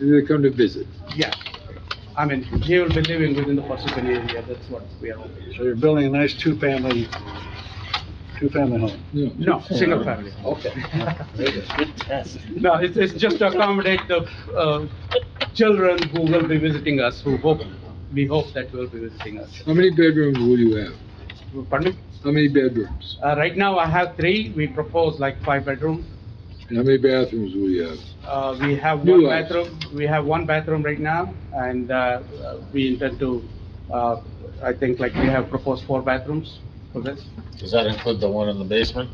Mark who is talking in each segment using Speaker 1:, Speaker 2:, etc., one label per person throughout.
Speaker 1: They come to visit.
Speaker 2: Yeah. I mean, he will be living within the Parsippany area, that's what we are hoping.
Speaker 3: So you're building a nice two-family, two-family home?
Speaker 2: No, single family.
Speaker 3: Okay.
Speaker 2: No, it's, it's just to accommodate the, uh, children who will be visiting us, who hope, we hope that will be visiting us.
Speaker 1: How many bedrooms will you have?
Speaker 2: Pardon me?
Speaker 1: How many bedrooms?
Speaker 2: Uh, right now I have three, we propose like five bedroom.
Speaker 1: And how many bathrooms will you have?
Speaker 2: Uh, we have
Speaker 1: New
Speaker 2: one
Speaker 1: house.
Speaker 2: bathroom, we have one bathroom right now, and, uh, we intend to, uh, I think like we have proposed four bathrooms for this.
Speaker 4: Does that include the one in the basement?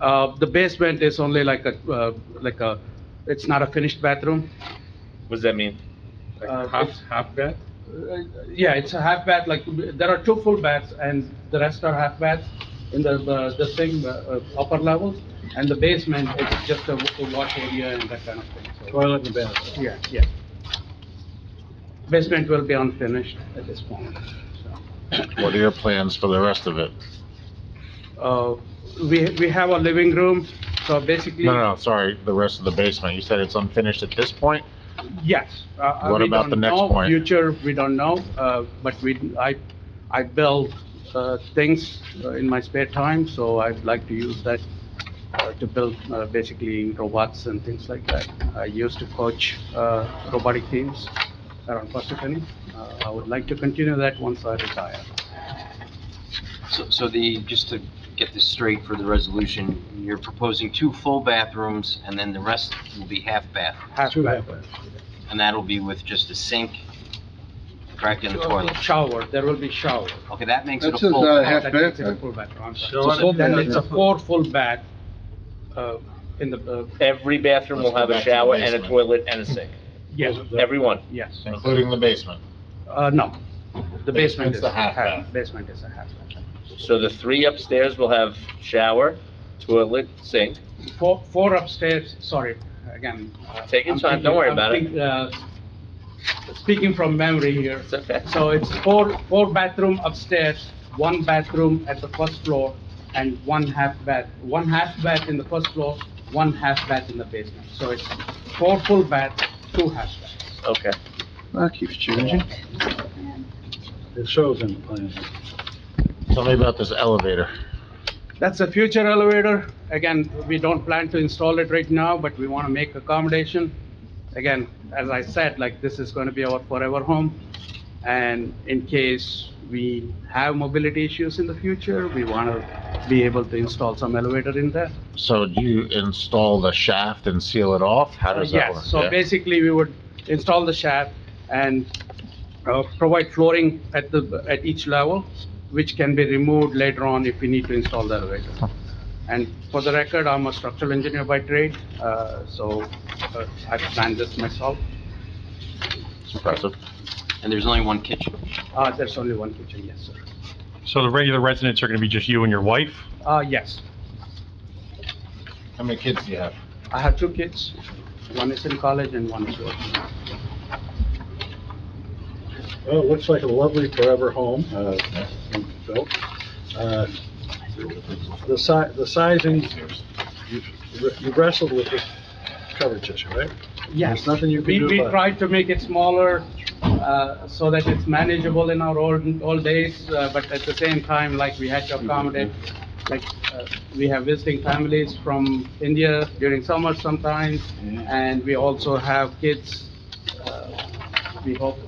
Speaker 2: Uh, the basement is only like a, uh, like a, it's not a finished bathroom.
Speaker 5: What does that mean? Like
Speaker 2: Uh,
Speaker 5: half,
Speaker 2: it's-
Speaker 5: half bath?
Speaker 2: Uh, Yeah, it's a half bath, like, there are two full baths and the rest are half baths in the, the- the same uh, uh, upper level. And the basement, it's just a wa- a wash area and that kind of thing, so,
Speaker 3: Toilet and bathroom.
Speaker 2: yeah, yeah. Basement will be unfinished at this point.
Speaker 4: What are your plans for the rest of it?
Speaker 2: Uh, we, we have a living room, so basically.
Speaker 4: No, no, no, sorry, the rest of the basement. You said it's unfinished at this point?
Speaker 2: Yes. uh,
Speaker 4: What
Speaker 2: we
Speaker 4: about the
Speaker 2: don't
Speaker 4: next
Speaker 2: know.
Speaker 4: point?
Speaker 2: Future, we don't know, uh, but we, I, I build uh, things uh, in my spare time, so I'd like to use that uh, to build uh, basically robots and things like that. I used to coach uh, robotic teams around Parsippany. Uh, I would like to continue that once I retire.
Speaker 6: So, so the, just to get this straight for the resolution, you're proposing two full bathrooms, and then the rest will be half bath,
Speaker 2: Half
Speaker 3: Two
Speaker 2: bath-
Speaker 6: and that'll be with just a sink, crack and a toilet.
Speaker 2: Shower, there will be shower.
Speaker 6: Okay, that makes it a
Speaker 7: That's just,
Speaker 6: full
Speaker 7: uh,
Speaker 6: bath.
Speaker 7: half
Speaker 2: That makes it a
Speaker 7: bath,
Speaker 2: full bathroom, I'm sorry.
Speaker 5: Shower.
Speaker 3: full
Speaker 2: Then
Speaker 3: bath.
Speaker 2: it's a four full bath uh, in the, uh,
Speaker 5: Every bathroom will
Speaker 4: Let's go
Speaker 5: have a
Speaker 4: back to the
Speaker 5: shower and a
Speaker 4: basement.
Speaker 5: toilet and a sink.
Speaker 2: yes.
Speaker 5: Every one.
Speaker 2: Yes,
Speaker 4: Including the basement?
Speaker 2: uh, no, the basement
Speaker 4: It's
Speaker 2: is
Speaker 4: the
Speaker 2: a
Speaker 4: half
Speaker 2: half,
Speaker 4: bath.
Speaker 2: basement is a half. bath.
Speaker 5: So the three upstairs will have shower, toilet, sink.
Speaker 2: Four, four upstairs, sorry, again. uh,
Speaker 5: Take your
Speaker 2: I'm
Speaker 5: time, don't
Speaker 2: thinking-
Speaker 5: worry
Speaker 2: I'm
Speaker 5: about it.
Speaker 2: think- uh, Speaking from memory here,
Speaker 5: It's okay.
Speaker 2: so it's four, four bathroom upstairs, one bathroom at the first floor, and one half bath, one half bath in the first floor, one half bath in the basement. So it's four full baths, two half baths.
Speaker 5: Okay.
Speaker 7: That keeps changing.
Speaker 3: It shows in the plan.
Speaker 4: Tell me about this elevator.
Speaker 2: That's a future elevator. Again, we don't plan to install it right now, but we want to make accommodation. Again, as I said, like, this is going to be our forever home. And in case we have mobility issues in the future, we want to be able to install some elevator in there.
Speaker 4: So do you install the shaft and seal it off? How does that work?
Speaker 2: Uh, Yes, so
Speaker 4: Yeah.
Speaker 2: basically, we would install the shaft and uh, provide flooring at the, at each level, which can be removed later on if we need to install the elevator. And for the record, I'm a structural engineer by trade, uh, so uh, I planned this myself.
Speaker 4: It's impressive.
Speaker 6: And there's only one kitchen.
Speaker 2: Uh, There's only one kitchen, yes, sir.
Speaker 8: So the regular residents are going to be just you and your wife?
Speaker 2: Uh, Yes,
Speaker 4: How many kids do you have?
Speaker 2: I have two kids. One is in college and one is working.
Speaker 3: Well, it looks like a lovely forever home, uh, being built. Uh, The si, the sizing, you you wrestled with this coverage issue, right?
Speaker 2: Yes.
Speaker 3: There's nothing you can
Speaker 2: We-
Speaker 3: do about
Speaker 2: We
Speaker 3: it.
Speaker 2: tried to make it smaller, uh, so that it's manageable in our old, old days, uh, but at the same time, like, we had to accommodate, like, uh, we have visiting families from India during summer sometimes, and we also have kids. uh, We hope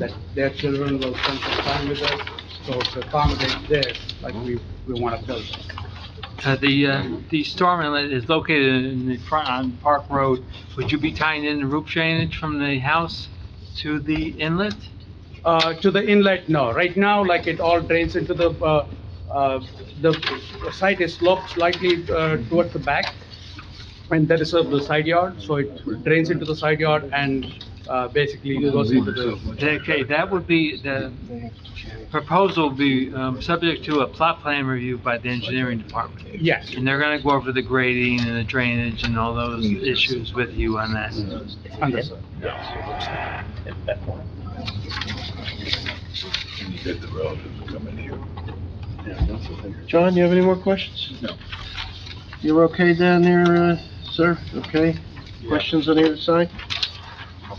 Speaker 2: that their children will spend some time with us, so to accommodate this, like, we, we want to build.
Speaker 9: Uh, The, uh, the storm inlet is located in the front, on Park Road. Would you be tying in the roof drainage from the house to the inlet?
Speaker 2: Uh, to the inlet, no. Right now, like, it all drains into the, uh, uh, the site is sloped slightly uh, towards the back, and that is uh, the side yard, so it drains into the side yard and uh, basically goes into the...
Speaker 9: Okay, that would be, the proposal would be um, subject to a plot plan review by the engineering department.
Speaker 2: Yes,
Speaker 9: And they're going to go over the grading and the drainage and all those issues with you on that.
Speaker 2: understood.
Speaker 7: John, you have any more questions? No. You're okay down there, uh, sir? Okay? Questions on either side?